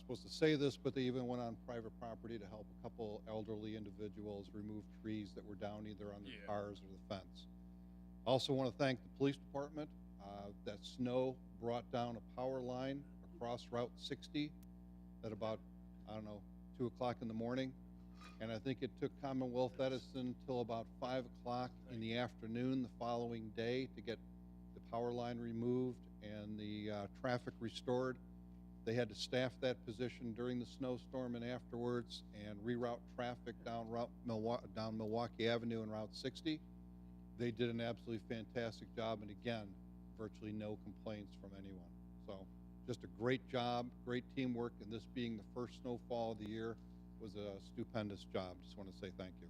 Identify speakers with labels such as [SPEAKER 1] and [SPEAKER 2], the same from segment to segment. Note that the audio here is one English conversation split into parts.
[SPEAKER 1] supposed to say this, but they even went on private property to help a couple elderly individuals remove trees that were down either on their
[SPEAKER 2] Yeah.
[SPEAKER 1] cars or the fence. Also want to thank the police department. Uh, that snow brought down a power line across Route sixty at about, I don't know, two o'clock in the morning. And I think it took Commonwealth Edison till about five o'clock in the afternoon the following day to get the power line removed and the uh, traffic restored. They had to staff that position during the snowstorm and afterwards and reroute traffic down Route Milwaukee, down Milwaukee Avenue and Route 60. They did an absolutely fantastic job, and again, virtually no complaints from anyone. So, just a great job, great teamwork, and this being the first snowfall of the year was a stupendous job. Just want to say thank you.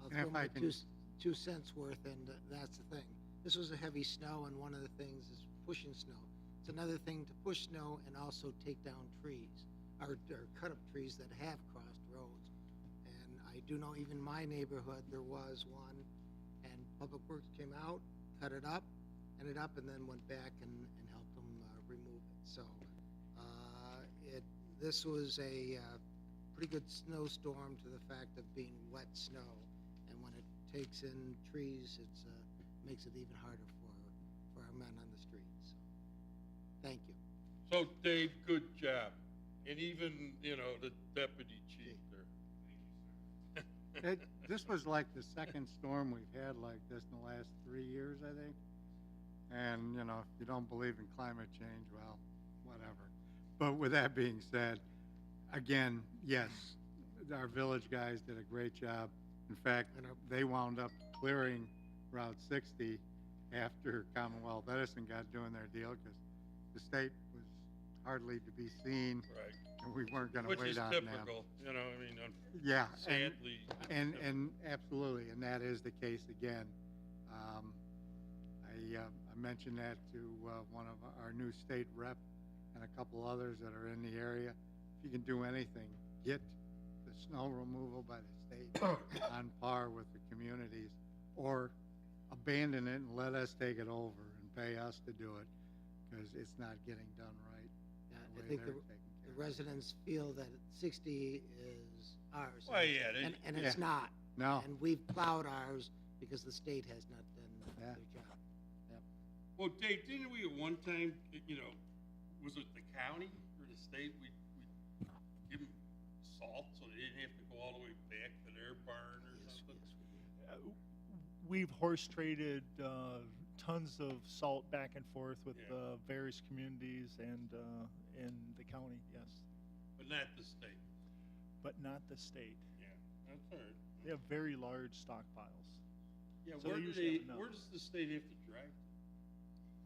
[SPEAKER 3] I'll
[SPEAKER 4] And if
[SPEAKER 3] throw my
[SPEAKER 4] I can-
[SPEAKER 3] two, s- two cents worth, and uh, that's the thing. This was a heavy snow, and one of the things is pushing snow. It's another thing to push snow and also take down trees, or, or cut up trees that have crossed roads. And I do know even my neighborhood, there was one, and Public Works came out, cut it up, ended up, and then went back and, and helped them uh, remove it. So, uh, it, this was a, uh, pretty good snowstorm to the fact of being wet snow. And when it takes in trees, it's, uh, makes it even harder for, for our men on the streets. Thank you.
[SPEAKER 2] So Dave, good job. And even, you know, the deputy chief there.
[SPEAKER 4] It, this was like the second storm we've had like this in the last three years, I think. And, you know, if you don't believe in climate change, well, whatever. But with that being said, again, yes, our village guys did a great job. In fact,
[SPEAKER 3] And our-
[SPEAKER 4] they wound up clearing Route sixty after Commonwealth Edison got doing their deal because the state was hardly to be seen
[SPEAKER 2] Right.
[SPEAKER 4] and we weren't gonna
[SPEAKER 2] Which
[SPEAKER 4] wait
[SPEAKER 2] is
[SPEAKER 4] on them.
[SPEAKER 2] typical, you know, I mean, um,
[SPEAKER 4] Yeah, and,
[SPEAKER 2] sadly.
[SPEAKER 4] and, and absolutely, and that is the case again. Um, I, uh, I mentioned that to, uh, one of our new state rep and a couple others that are in the area. If you can do anything, get the snow removal by the state on par with the communities or abandon it and let us take it over and pay us to do it because it's not getting done right.
[SPEAKER 3] Uh,
[SPEAKER 4] the
[SPEAKER 3] I
[SPEAKER 4] way
[SPEAKER 3] think the,
[SPEAKER 4] they're taking
[SPEAKER 3] the
[SPEAKER 4] care of it.
[SPEAKER 3] residents feel that sixty is ours.
[SPEAKER 2] Well, yeah, they-
[SPEAKER 3] And, and it's
[SPEAKER 4] Yeah. Oh.
[SPEAKER 3] not.
[SPEAKER 4] No,
[SPEAKER 3] And we've plowed ours because the state has not done their
[SPEAKER 4] Yeah.
[SPEAKER 3] job.
[SPEAKER 2] Well, Dave, didn't we at one time, you know, was it the county or the state, we, we give them salt so they didn't have to go all the way back to their barn or
[SPEAKER 3] Yes,
[SPEAKER 2] something?
[SPEAKER 3] yes, we do.
[SPEAKER 5] Uh, We've horse traded uh, tons of salt back and forth with
[SPEAKER 2] Yeah.
[SPEAKER 5] uh, various communities and uh, in the county, yes,
[SPEAKER 2] But not the state,
[SPEAKER 5] but not the state.
[SPEAKER 2] yeah, that's all right.
[SPEAKER 5] They have very large stockpiles.
[SPEAKER 2] Yeah,
[SPEAKER 5] so
[SPEAKER 2] where do
[SPEAKER 5] they usually have
[SPEAKER 2] they,
[SPEAKER 5] enough.
[SPEAKER 2] where does the state have to drive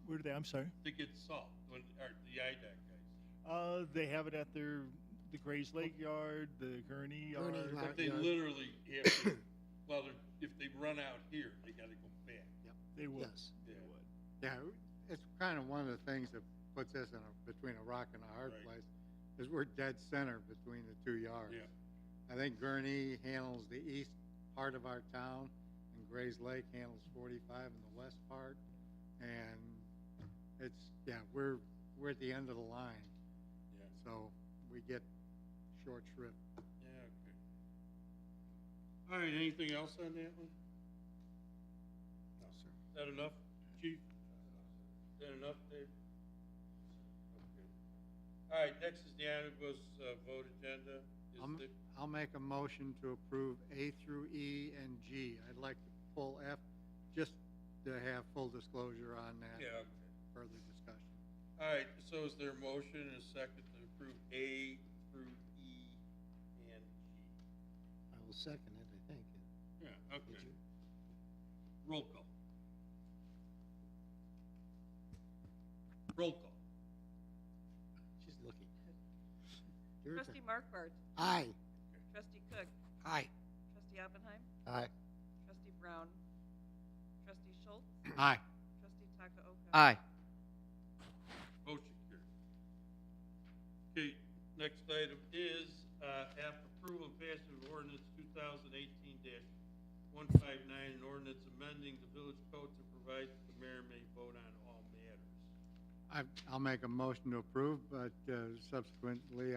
[SPEAKER 5] Where do they? I'm sorry.
[SPEAKER 2] to get salt, when, or the IDOT guys?
[SPEAKER 5] Uh, they have it at their the Grays Lake yard, the Gurney yard.
[SPEAKER 3] Gurney lot.
[SPEAKER 2] But they
[SPEAKER 3] Yeah.
[SPEAKER 2] literally have to, well, they're- if they run out here, they gotta go back.
[SPEAKER 5] They would.
[SPEAKER 3] Yes.
[SPEAKER 5] They
[SPEAKER 2] Yeah.
[SPEAKER 5] would.
[SPEAKER 4] Yeah, it's kind of one of the things that puts us in a, between a rock and a hard
[SPEAKER 2] Right.
[SPEAKER 4] place, is we're dead center between the two yards.
[SPEAKER 2] Yeah,
[SPEAKER 4] I think Gurney handles the east part of our town, and Gray's Lake handles forty-five in the west part. And it's, yeah, we're, we're at the end of the line,
[SPEAKER 2] yeah,
[SPEAKER 4] so we get short shrift.
[SPEAKER 2] yeah, okay. All right, anything else on that one? No, sir. That enough, chief? That enough, Dave? Okay. All right, next is the omnibus, uh, vote agenda. Is
[SPEAKER 4] Um,
[SPEAKER 2] the-
[SPEAKER 4] I'll make a motion to approve A through E and G. I'd like to pull F, just to have full disclosure on that,
[SPEAKER 2] Yeah, okay.
[SPEAKER 4] further discussion.
[SPEAKER 2] All right, so is there a motion and a second to approve A through E and G?
[SPEAKER 3] I will second it, I think.
[SPEAKER 2] Yeah,
[SPEAKER 3] Did
[SPEAKER 2] okay.
[SPEAKER 3] you?
[SPEAKER 2] Roll call. Roll call.
[SPEAKER 3] She's looking. Your turn.
[SPEAKER 6] Trustee Markwart,
[SPEAKER 3] Aye.
[SPEAKER 6] trustee Cook,
[SPEAKER 3] Aye.
[SPEAKER 6] trustee Oppenheim,
[SPEAKER 3] Aye.
[SPEAKER 6] trustee Brown, trustee Schultz,
[SPEAKER 4] Aye.
[SPEAKER 6] trustee Takaoka.
[SPEAKER 3] Aye.
[SPEAKER 2] Motion carried. Okay, next item is, uh, app approval and passage of ordinance two thousand eighteen one five nine, an ordinance amending the village code to provide that the mayor may vote on all matters.
[SPEAKER 4] I, I'll make a motion to approve, but uh, subsequently